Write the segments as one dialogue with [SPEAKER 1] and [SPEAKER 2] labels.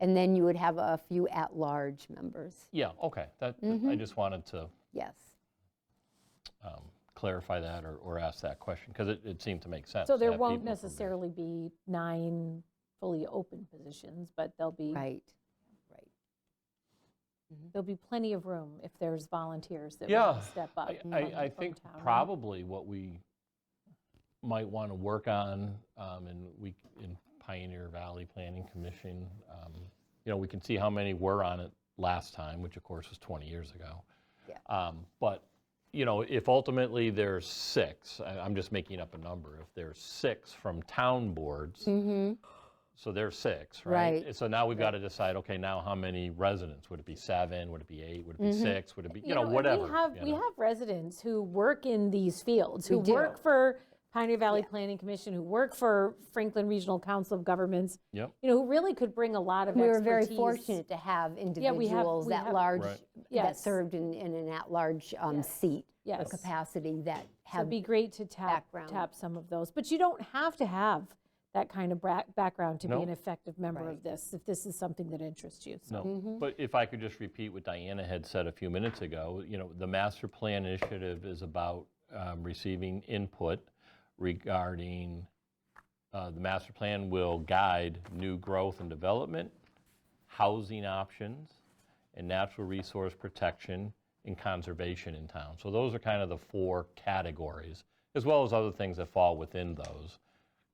[SPEAKER 1] And then you would have a few at-large members,
[SPEAKER 2] Yeah, okay, that, that-
[SPEAKER 3] Mm-hmm.
[SPEAKER 2] I just wanted to
[SPEAKER 1] yes.
[SPEAKER 2] um, clarify that or, or ask that question, because it, it seemed to make sense.
[SPEAKER 3] So
[SPEAKER 2] to
[SPEAKER 3] there
[SPEAKER 2] have
[SPEAKER 3] won't
[SPEAKER 2] people from different-
[SPEAKER 3] necessarily be nine fully open positions, but there'll be,
[SPEAKER 1] Right, right. Mm-hmm.
[SPEAKER 3] there'll be plenty of room if there's volunteers that
[SPEAKER 2] Yeah,
[SPEAKER 3] want to step up.
[SPEAKER 2] I-
[SPEAKER 3] from-
[SPEAKER 2] I, I
[SPEAKER 3] from
[SPEAKER 2] think
[SPEAKER 3] town, right?
[SPEAKER 2] probably what we might want to work on, um, and we, in Pioneer Valley Planning Commission, um, you know, we can see how many were on it last time, which of course was 20 years ago.
[SPEAKER 1] Yeah.
[SPEAKER 2] Um, But, you know, if ultimately there's six, I- I'm just making up a number, if there's six from town boards,
[SPEAKER 1] Mm-hmm,
[SPEAKER 2] so there's six, right?
[SPEAKER 1] Right.
[SPEAKER 2] So now we've got to decide, okay, now how many residents? Would it be seven? Would it be eight? Would it be six? Would it be, you know,
[SPEAKER 3] Mm-hmm. and
[SPEAKER 2] whatever?
[SPEAKER 3] We have,
[SPEAKER 2] you
[SPEAKER 3] we
[SPEAKER 2] know?
[SPEAKER 3] have residents who work in these fields, who
[SPEAKER 1] We do.
[SPEAKER 3] work for Pioneer Valley Planning Commission, who work for Franklin Regional Council of Governments,
[SPEAKER 2] Yep.
[SPEAKER 3] you know, who really could bring a lot of
[SPEAKER 1] We were
[SPEAKER 3] expertise.
[SPEAKER 1] very fortunate to have
[SPEAKER 3] we have-
[SPEAKER 1] individuals
[SPEAKER 3] we
[SPEAKER 1] at
[SPEAKER 3] have-
[SPEAKER 1] large,
[SPEAKER 2] Right.
[SPEAKER 1] that
[SPEAKER 3] Yes.
[SPEAKER 1] served in, in an at-large um, seat or
[SPEAKER 3] Yes.
[SPEAKER 1] capacity that
[SPEAKER 3] So it'd
[SPEAKER 1] have,
[SPEAKER 3] be great to tap,
[SPEAKER 1] background.
[SPEAKER 3] tap some of those, but you don't have to have that kind of bra- background to be
[SPEAKER 2] No.
[SPEAKER 3] an effective member of this, if this is something that interests you. So
[SPEAKER 2] No, but if I could just repeat what Diana had said a few minutes ago, you know, the master plan initiative is about um, receiving input regarding, uh, the master plan will guide new growth and development, housing options, and natural resource protection and conservation in town. So those are kind of the four categories, as well as other things that fall within those.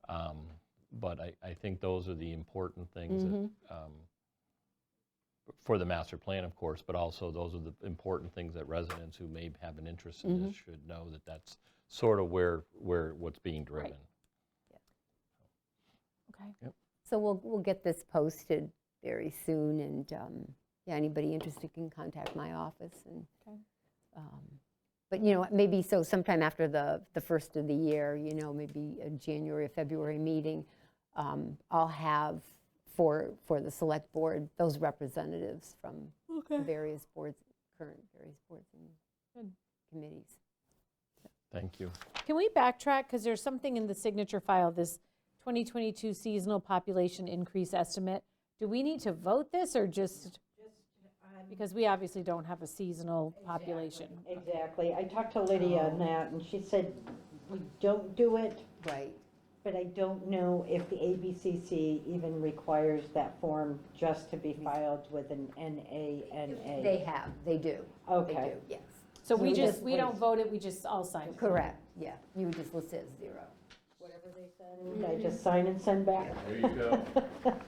[SPEAKER 2] Um, But I, I think those are the important things that um, for the master plan, of course, but also those are the important things that residents who may have an interest in this
[SPEAKER 1] Mm-hmm.
[SPEAKER 2] should know that that's sort of where, where, what's being driven.
[SPEAKER 3] Okay.
[SPEAKER 1] so we'll, we'll get this posted very soon, and, um, yeah, anybody interested can contact my office, and,
[SPEAKER 3] Okay.
[SPEAKER 1] um, but, you know, maybe, so sometime after the, the first of the year, you know, maybe a January, or February meeting, um, I'll have for, for the select board, those representatives from the various boards, current various boards and
[SPEAKER 3] Good.
[SPEAKER 1] committees.
[SPEAKER 2] Thank you.
[SPEAKER 3] Can we backtrack, because there's something in the signature file, this 2022 seasonal population increase estimate? Do we need to vote this, or just, because we obviously don't have a seasonal population?
[SPEAKER 4] Exactly. I talked to
[SPEAKER 3] Oh.
[SPEAKER 4] Lydia on that, and she said, we don't do it,
[SPEAKER 1] Right.
[SPEAKER 4] but I don't know if the ABCC even requires that form just to be filed with an NANA.
[SPEAKER 1] They have, they do. They
[SPEAKER 4] Okay.
[SPEAKER 1] do, yes.
[SPEAKER 3] So we
[SPEAKER 1] we
[SPEAKER 3] just,
[SPEAKER 1] just
[SPEAKER 3] we don't
[SPEAKER 1] wait.
[SPEAKER 3] vote it, we just all sign it?
[SPEAKER 1] Correct, yeah. You would just list it as zero.
[SPEAKER 4] And I just sign and send back.
[SPEAKER 2] There you go.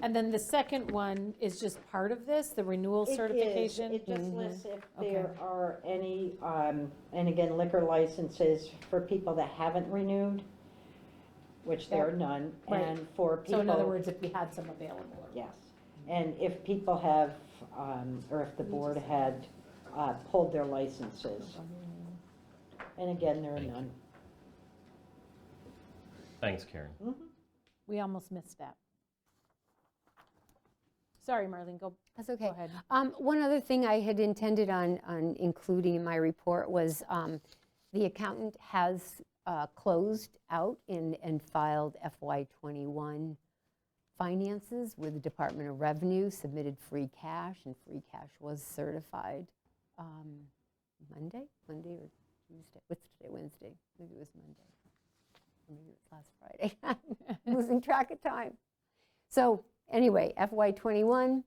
[SPEAKER 3] And then the second one is just part of this, the renewal
[SPEAKER 4] It is.
[SPEAKER 3] certification? Mm-hmm.
[SPEAKER 4] It just lists if
[SPEAKER 3] Okay.
[SPEAKER 4] there are any, um, and again, liquor licenses for people that haven't renewed, which there are none,
[SPEAKER 3] Right.
[SPEAKER 4] and for people.
[SPEAKER 3] So in other words, if we had some available. or-
[SPEAKER 4] Yes, and if people have, um, or if the board had uh, pulled their licenses. And again, there are
[SPEAKER 2] Thank you.
[SPEAKER 4] none.
[SPEAKER 2] Thanks, Karen.
[SPEAKER 3] We almost missed that. Sorry, Marlene, go,
[SPEAKER 1] That's okay.
[SPEAKER 3] go ahead.
[SPEAKER 1] Um, One other thing I had intended on, on including in my report was um, the accountant has uh, closed out and, and filed FY '21 finances with the Department of Revenue, submitted free cash, and free cash was certified um, Monday, Monday or Tuesday, what's today, Wednesday? Maybe it was Monday. Or Maybe it was last Friday. I'm Losing track of time. So anyway, FY '21,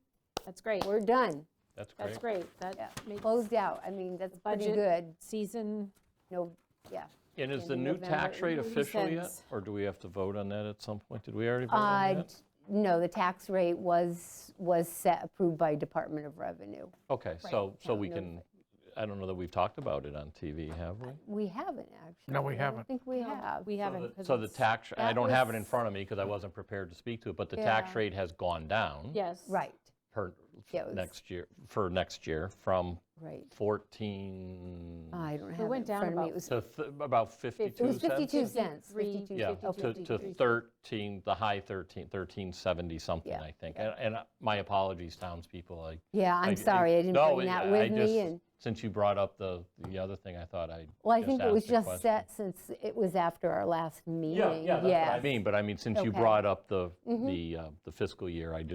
[SPEAKER 3] That's great.
[SPEAKER 1] we're done.
[SPEAKER 2] That's great.
[SPEAKER 3] That's great.
[SPEAKER 1] Yeah,
[SPEAKER 3] That makes
[SPEAKER 1] closed out, I mean, that's pretty
[SPEAKER 3] budget-
[SPEAKER 1] good,
[SPEAKER 3] season
[SPEAKER 1] no, yeah.
[SPEAKER 2] And is the
[SPEAKER 1] Ending
[SPEAKER 2] new
[SPEAKER 1] November
[SPEAKER 2] tax rate
[SPEAKER 3] in
[SPEAKER 2] official yet?
[SPEAKER 3] cents.
[SPEAKER 2] Or do we have to vote on that at some point? Did we already vote
[SPEAKER 1] Uh,
[SPEAKER 2] on that?
[SPEAKER 1] No, the tax rate was, was set, approved by Department of Revenue.
[SPEAKER 2] Okay, so, so we
[SPEAKER 1] no,
[SPEAKER 2] can, I don't know that we've talked about it on TV, have we?
[SPEAKER 1] We haven't, actually.
[SPEAKER 5] No, we
[SPEAKER 1] I don't
[SPEAKER 5] haven't.
[SPEAKER 1] think we have.
[SPEAKER 3] we haven't.
[SPEAKER 2] So the-
[SPEAKER 3] 'cause
[SPEAKER 2] So the
[SPEAKER 3] it's-
[SPEAKER 2] tax, I
[SPEAKER 1] that
[SPEAKER 2] don't have it in
[SPEAKER 1] was-
[SPEAKER 2] front of me because I wasn't prepared to speak to it, but the tax
[SPEAKER 1] Yeah.
[SPEAKER 2] rate has gone down.
[SPEAKER 3] Yes.
[SPEAKER 1] Right,
[SPEAKER 2] Per,
[SPEAKER 1] Yeah, it was-
[SPEAKER 2] next year, for next year, from
[SPEAKER 1] right.
[SPEAKER 2] 14
[SPEAKER 1] I don't have it
[SPEAKER 3] went
[SPEAKER 1] in
[SPEAKER 3] down
[SPEAKER 1] front of me.
[SPEAKER 3] about
[SPEAKER 1] It was-
[SPEAKER 2] to th- about 52
[SPEAKER 1] Uh, it was
[SPEAKER 2] cents.
[SPEAKER 1] 52 cents,
[SPEAKER 3] Fifty-three,
[SPEAKER 1] 52,
[SPEAKER 2] Yeah,
[SPEAKER 3] fifty-two,
[SPEAKER 2] to,
[SPEAKER 1] 52.
[SPEAKER 2] to 13, the high 13, 1370 something,
[SPEAKER 1] Yeah,
[SPEAKER 2] I think. And and, uh, my apologies, townspeople, I.
[SPEAKER 1] Yeah,
[SPEAKER 2] I-
[SPEAKER 1] I'm sorry, I didn't
[SPEAKER 2] no,
[SPEAKER 1] bring
[SPEAKER 2] I-
[SPEAKER 1] that
[SPEAKER 2] I
[SPEAKER 1] with
[SPEAKER 2] just-
[SPEAKER 1] me, and,
[SPEAKER 2] Since you brought up the, the other thing, I thought I'd.
[SPEAKER 1] well, I think it
[SPEAKER 2] ask
[SPEAKER 1] was
[SPEAKER 2] a
[SPEAKER 1] just
[SPEAKER 2] question.
[SPEAKER 1] set since it was after our last meeting.
[SPEAKER 2] Yeah, yeah, that's what I
[SPEAKER 1] Yes.
[SPEAKER 2] mean, but I mean, since you
[SPEAKER 1] Okay. Mm-hmm.
[SPEAKER 2] brought up the, the uh, the fiscal year, I just